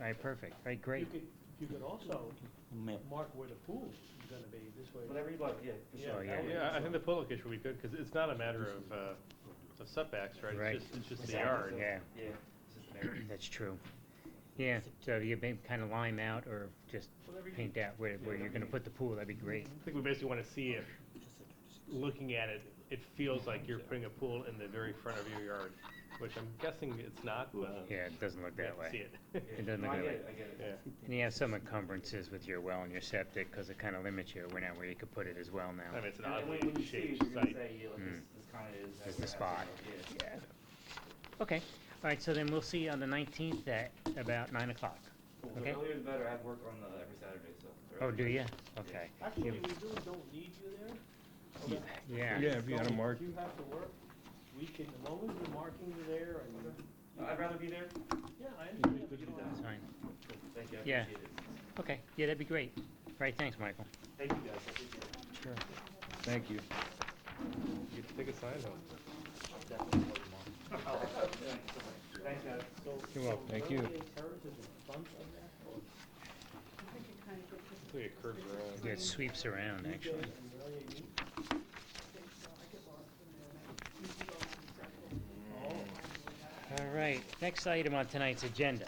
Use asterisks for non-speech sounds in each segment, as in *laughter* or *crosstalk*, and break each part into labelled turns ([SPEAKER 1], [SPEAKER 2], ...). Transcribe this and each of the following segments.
[SPEAKER 1] All right, perfect, all right,
[SPEAKER 2] You
[SPEAKER 1] great.
[SPEAKER 2] could, you could also
[SPEAKER 3] Map.
[SPEAKER 2] mark where the pool's gonna be, this way.
[SPEAKER 4] Whatever you'd like, yeah, for
[SPEAKER 2] Yeah,
[SPEAKER 4] sure.
[SPEAKER 1] yeah,
[SPEAKER 2] that would
[SPEAKER 5] Yeah, I- I
[SPEAKER 2] be-
[SPEAKER 5] think the pool location would be good, because it's not a matter of, uh, of setbacks, right?
[SPEAKER 1] Right.
[SPEAKER 5] It's just, it's just the
[SPEAKER 1] Exactly.
[SPEAKER 5] yard.
[SPEAKER 1] Yeah,
[SPEAKER 4] Yeah.
[SPEAKER 1] that's true. Yeah, so you may kind of line out or just
[SPEAKER 2] Whatever you-
[SPEAKER 1] paint out where, where you're gonna put the pool, that'd be great.
[SPEAKER 5] I think we basically want to see if, looking at it, it feels like you're putting a pool in the very front of your yard, which I'm guessing it's not, but
[SPEAKER 1] Yeah, it doesn't look
[SPEAKER 5] we have
[SPEAKER 1] that
[SPEAKER 5] to see
[SPEAKER 1] way.
[SPEAKER 5] it.
[SPEAKER 4] yeah.
[SPEAKER 1] It doesn't
[SPEAKER 4] No,
[SPEAKER 1] look
[SPEAKER 4] I
[SPEAKER 1] that
[SPEAKER 4] get
[SPEAKER 1] way.
[SPEAKER 4] it, I get it.
[SPEAKER 5] Yeah.
[SPEAKER 1] And you have some encumbrances with your well and your septic, because it kind of limits you, where now where you could put it as well
[SPEAKER 5] I
[SPEAKER 1] now.
[SPEAKER 5] mean, it's an
[SPEAKER 4] And then when-
[SPEAKER 5] oddly
[SPEAKER 4] when you see it,
[SPEAKER 5] shaped
[SPEAKER 4] you're gonna
[SPEAKER 5] site.
[SPEAKER 4] say, yeah, like,
[SPEAKER 1] Mm.
[SPEAKER 4] this, this kinda is.
[SPEAKER 1] It's
[SPEAKER 4] how
[SPEAKER 1] the
[SPEAKER 4] it
[SPEAKER 1] spot.
[SPEAKER 4] happens, yeah.
[SPEAKER 1] Yeah. Okay, all right, so then we'll see you on the nineteenth at about nine o'clock.
[SPEAKER 4] Cool.
[SPEAKER 1] Okay.
[SPEAKER 4] The earlier the better, I have work on uh, every Saturday, so.
[SPEAKER 1] Oh, do you? Okay.
[SPEAKER 2] Actually, we really don't need you there. Okay.
[SPEAKER 1] Yeah.
[SPEAKER 6] Yeah, if you had a
[SPEAKER 2] So
[SPEAKER 6] mark-
[SPEAKER 2] you have to work, we can, as long as you're marking there and,
[SPEAKER 4] Uh, I'd rather be there,
[SPEAKER 2] yeah, I understand. but you don't
[SPEAKER 1] That's
[SPEAKER 2] have-
[SPEAKER 1] fine.
[SPEAKER 4] Cool. thank you, I
[SPEAKER 1] Yeah.
[SPEAKER 4] appreciate it.
[SPEAKER 1] Okay, yeah, that'd be great. All right, thanks, Michael.
[SPEAKER 4] Thank you guys, I appreciate it.
[SPEAKER 6] Thank you.
[SPEAKER 5] You can take a sign home.
[SPEAKER 4] Thanks, guys.
[SPEAKER 2] So-
[SPEAKER 6] You're welcome.
[SPEAKER 2] so
[SPEAKER 6] Thank you.
[SPEAKER 2] Roseville Terrace is in front of that, or
[SPEAKER 5] It's like a curved garage.
[SPEAKER 1] Yeah, It sweeps around,
[SPEAKER 2] Roseville
[SPEAKER 1] actually.
[SPEAKER 2] and Raleigh meet?
[SPEAKER 1] All right, next item on tonight's agenda.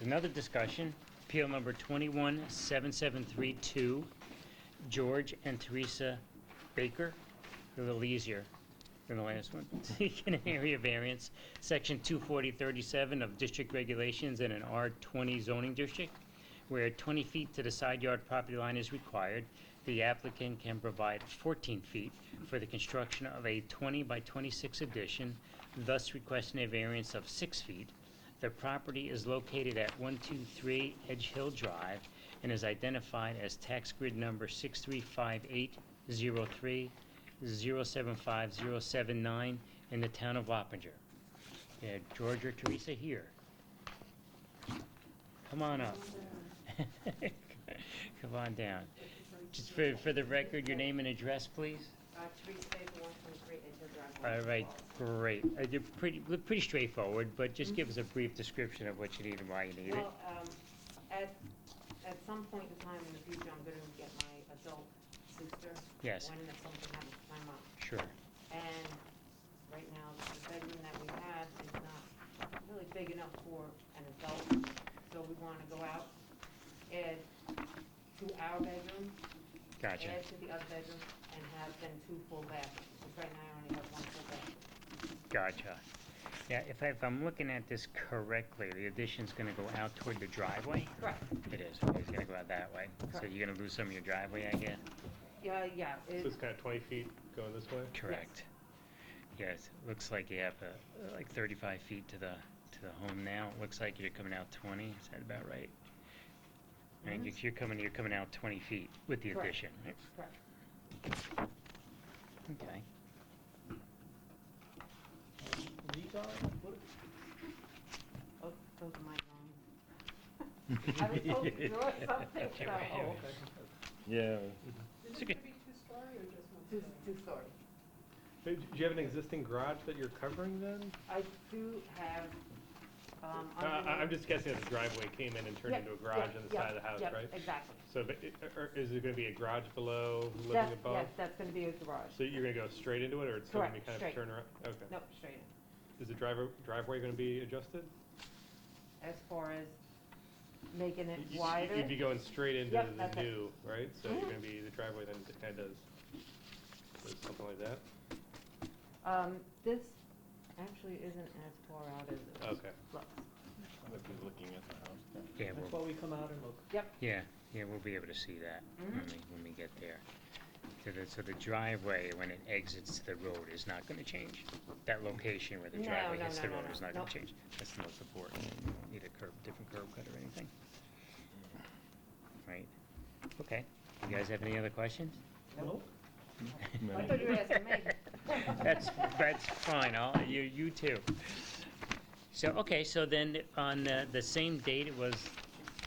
[SPEAKER 1] Another discussion, appeal number 217732, George and Teresa Baker. A little easier than the last one. *laughs* Seeking an area variance, section 24037 of district regulations in an R20 zoning district, where 20 feet to the side yard property line is required. The applicant can provide 14 feet for the construction of a 20 by 26 addition, thus requesting a variance of 6 feet. The property is located at 123 Edge Hill Drive and is identified as tax grid number 635803 075079 in the town of Wappinger. Yeah, George or Teresa here. Come on up. *laughs* Come on down. Just for, for the record, your name and address, please?
[SPEAKER 7] Uh, Teresa Baker, one twenty-three, Edgehill Drive.
[SPEAKER 1] All right, great. Uh, You're pretty, look pretty straightforward, but just give us a brief description of what you need and why you need it.
[SPEAKER 7] Well, um, at, at some point in time in the future, I'm gonna get my adult sister.
[SPEAKER 1] Yes.
[SPEAKER 7] When if something happens to my mom.
[SPEAKER 1] Sure.
[SPEAKER 7] And right now, the bedroom that we have is not really big enough for an adult, so we wanna go out, add to our bedroom,
[SPEAKER 1] Gotcha.
[SPEAKER 7] add to the other bedroom, and have then two full bathrooms. 'Cause right now, I only have one full bathroom.
[SPEAKER 1] Gotcha. Yeah, if I, if I'm looking at this correctly, the addition's gonna go out toward the driveway?
[SPEAKER 7] Right.
[SPEAKER 1] It is, it's gonna go out that way. So
[SPEAKER 7] Correct.
[SPEAKER 1] you're gonna lose some of your driveway, I guess?
[SPEAKER 7] Yeah, yeah,
[SPEAKER 5] So
[SPEAKER 7] it,
[SPEAKER 5] it's kind of twenty feet going this way.
[SPEAKER 1] Correct. Yes, looks like you have, uh, like thirty-five feet to the, to the home now. It Looks like you're coming out twenty, is that about right? And you- you're coming, you're coming out twenty feet with the
[SPEAKER 7] Mm-hmm. Correct.
[SPEAKER 1] addition, right?
[SPEAKER 7] correct.
[SPEAKER 1] *laughs* Okay.
[SPEAKER 2] And These are, what,
[SPEAKER 7] Oh, those are my drawings. I was told to draw something,
[SPEAKER 1] Okay,
[SPEAKER 7] so.
[SPEAKER 1] right.
[SPEAKER 2] oh, okay.
[SPEAKER 6] Yeah.
[SPEAKER 1] It's okay.
[SPEAKER 7] Two, two story.
[SPEAKER 5] Hey, Do you have an existing garage that you're covering then?
[SPEAKER 7] I do have, um.
[SPEAKER 5] Uh, I, I'm
[SPEAKER 7] underneath-
[SPEAKER 5] just guessing that the driveway came in and turned
[SPEAKER 7] Yep,
[SPEAKER 5] into a garage
[SPEAKER 7] yep,
[SPEAKER 5] on the
[SPEAKER 7] yep,
[SPEAKER 5] side of the house,
[SPEAKER 7] yep,
[SPEAKER 5] right?
[SPEAKER 7] Exactly.
[SPEAKER 5] So but i- or is it going to be a garage below, living
[SPEAKER 7] That's-
[SPEAKER 5] above?
[SPEAKER 7] Yes, that's gonna be a garage.
[SPEAKER 5] So you're going to go straight into it, or it's still going to be
[SPEAKER 7] Correct,
[SPEAKER 5] kind of
[SPEAKER 7] straight.
[SPEAKER 5] turn around? Okay.
[SPEAKER 7] Nope, straight in.
[SPEAKER 5] Is the driver, driveway going to be adjusted?
[SPEAKER 7] As far as making it
[SPEAKER 5] You- you-
[SPEAKER 7] wider.
[SPEAKER 5] You'd be going straight into
[SPEAKER 7] Yep, that's
[SPEAKER 5] the
[SPEAKER 7] it.
[SPEAKER 5] new, right? So you're
[SPEAKER 7] Mhm.
[SPEAKER 5] going to be, the driveway then kind of does something like that?
[SPEAKER 7] Um, this actually isn't as far out as it
[SPEAKER 5] Okay.
[SPEAKER 7] looks.
[SPEAKER 5] Looking at the house.
[SPEAKER 1] Yeah,
[SPEAKER 2] That's
[SPEAKER 1] we'll,
[SPEAKER 2] why we come out and look.
[SPEAKER 1] yeah, yeah, we'll be able to see that when
[SPEAKER 7] Mhm.
[SPEAKER 1] we, when we get there. So the, so the driveway, when it exits the road, is not gonna change? That location where the
[SPEAKER 7] No,
[SPEAKER 1] driveway
[SPEAKER 7] no,
[SPEAKER 1] hits
[SPEAKER 7] no,
[SPEAKER 1] the
[SPEAKER 7] no,
[SPEAKER 1] road
[SPEAKER 7] no.
[SPEAKER 1] is not gonna
[SPEAKER 7] Nope.
[SPEAKER 1] change? That's the most important. Need a curb, different curb cut or anything? Right, okay. You guys have any other questions? *laughs*
[SPEAKER 2] Nope.
[SPEAKER 7] I thought you were asking me.
[SPEAKER 1] That's, that's fine, I'll, you, you too. So, okay, so then on uh, the same date, it was,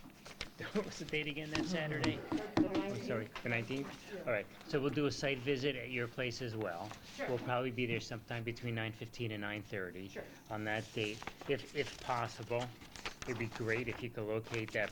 [SPEAKER 1] *laughs* what was the date again that Saturday?
[SPEAKER 7] *laughs* The
[SPEAKER 1] I'm
[SPEAKER 7] 19
[SPEAKER 1] sorry, the nineteenth? All right, so we'll do a site visit at your place as well.
[SPEAKER 7] Sure.
[SPEAKER 1] We'll probably be there sometime between nine fifteen and nine thirty.
[SPEAKER 7] Sure.
[SPEAKER 1] On that date, if, if possible. It'd be great if you could locate that